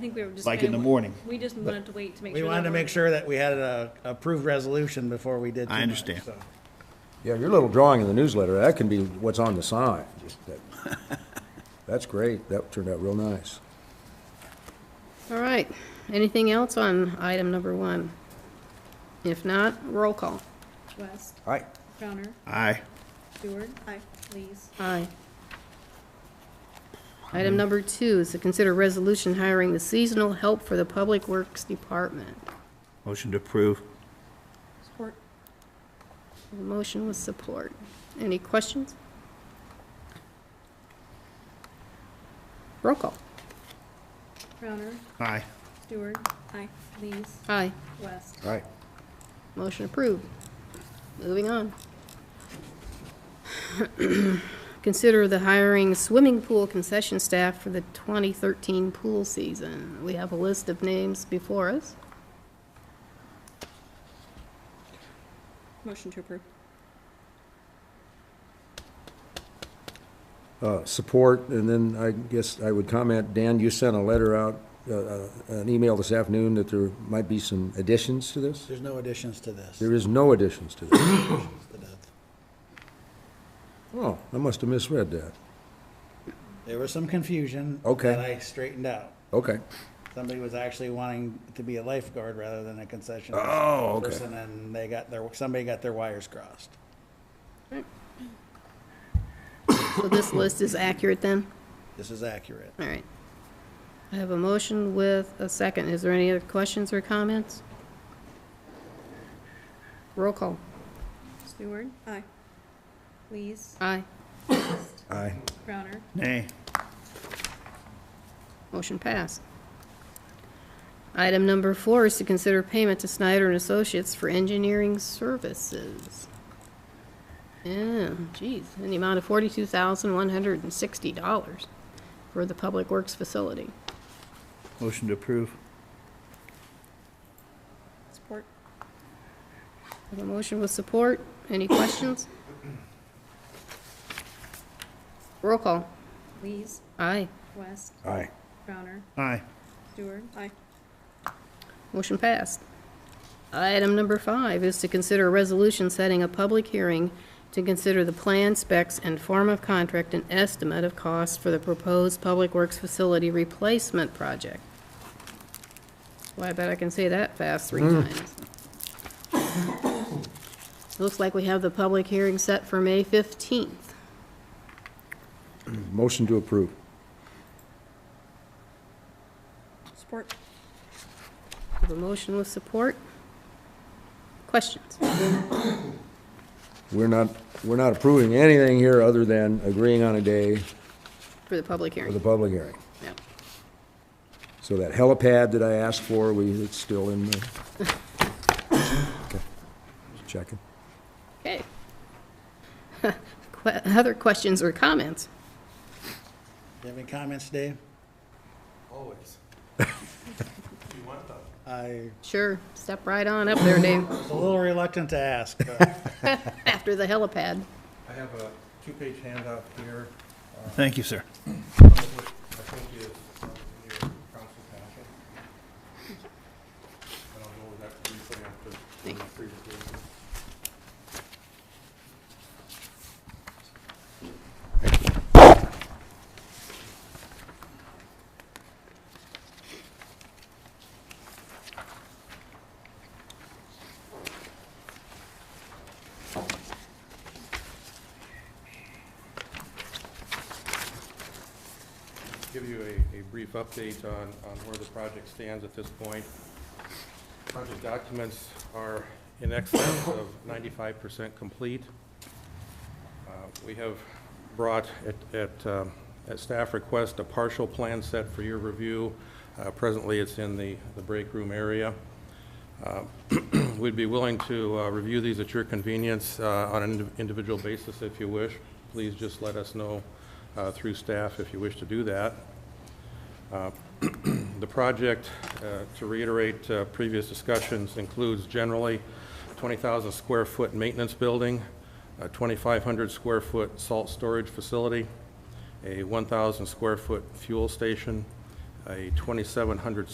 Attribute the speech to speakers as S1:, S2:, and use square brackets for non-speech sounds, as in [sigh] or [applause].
S1: I think we were just.
S2: Like in the
S1: gonna-
S2: morning.
S1: We just wanted to wait to make sure.
S3: We
S1: that
S3: wanted to
S1: we're-
S3: make sure that we had a approved resolution before we
S2: I
S3: did. too much,
S2: understand.
S3: so.
S4: Yeah, your little drawing in the newsletter, that can be what's on the sign. Just that- [laughs] That's great. That turned out real nice.
S5: All right. Anything else on item number one? If not, roll call.
S1: West,
S4: All right.
S1: Crowner,
S2: Aye.
S1: Stewart. Aye. Lees.
S5: Aye. Item number two is to consider resolution hiring the seasonal help for the Public Works Department.
S2: Motion to approve.
S1: Support.
S5: The motion with support. Any questions? Roll call.
S1: Crowner,
S2: Aye.
S1: Stewart. Aye. Lees.
S5: Aye.
S1: West.
S4: All right.
S5: Motion approved. Moving on. [clears throat] Consider the hiring swimming pool concession staff for the 2013 pool season. We have a list of names before us.
S1: Motion to approve.
S4: Uh, Support, and then I guess I would comment, Dan, you sent a letter out, uh, uh, an email this afternoon that there might be some additions to this?
S3: There's no additions to this.
S4: There is no additions to this. [coughs]
S3: to that.
S4: Oh, I must have misread that.
S3: There was some confusion.
S4: Okay.
S3: That I straightened out.
S4: Okay.
S3: Somebody was actually wanting to be a lifeguard rather than a concession.
S4: Oh, okay.
S3: Person, and they got their, somebody got their wires crossed.
S5: So this list is accurate then?
S3: This is accurate.
S5: All right. I have a motion with a second. Is there any other questions or comments? Roll call.
S1: Stewart. Aye. Lees.
S5: Aye.
S4: Aye.
S1: Crowner.
S2: Nay.
S5: Motion passed. Item number four is to consider payment to Snyder and Associates for engineering services. Yeah, geez, in the amount of forty-two thousand, one hundred and sixty dollars for the Public Works facility.
S2: Motion to approve.
S1: Support.
S5: Have a motion with support. Any questions? Roll call.
S1: Lees.
S5: Aye.
S1: West.
S4: Aye.
S1: Crowner.
S2: Aye.
S1: Stewart. Aye.
S5: Motion passed. Item number five is to consider a resolution setting a public hearing to consider the plan, specs, and form of contract and estimate of cost for the proposed Public Works Facility Replacement Project. Well, I bet I can say that fast three
S4: Mm.
S5: times. Looks like we have the public hearing set for May 15th.
S4: Motion to approve.
S1: Support.
S5: Have a motion with support? Questions?
S4: We're not, we're not approving anything here other than agreeing on a day
S5: For the public
S4: for the
S5: hearing?
S4: public hearing.
S5: No.
S4: So that helipad that I asked for, we, it's still in the... Okay. Just Checking.
S5: Okay. [laughs] Que- Other questions or comments?
S3: Do you have any comments, Dave?
S6: Always. You want them.
S3: I
S5: Sure, step right on up there, Dave,
S3: was a little reluctant to
S2: [laughs]
S3: ask, but
S5: after the helipad.
S6: I have a two-page handout here,
S2: Thank you, sir.
S6: some of which I think is um, in your council packet. And I'll go over that briefly after the presentation. give you a, a brief update on, on where the project stands at this point. Project documents are in excess of ninety-five percent complete. Uh, We have brought, at, at, um, at staff request, a partial plan set for your review. Uh, Presently, it's in the, the break room area. Uh, We'd be willing to uh, review these at your convenience uh, on an indi- individual basis if you wish. Please just let us know uh, through staff if you wish to do that. Uh, [clears throat] The project, uh, to reiterate uh, previous discussions, includes generally 20,000 square foot maintenance building, a 2,500 square foot salt storage facility, a 1,000 square foot fuel station, a 2,700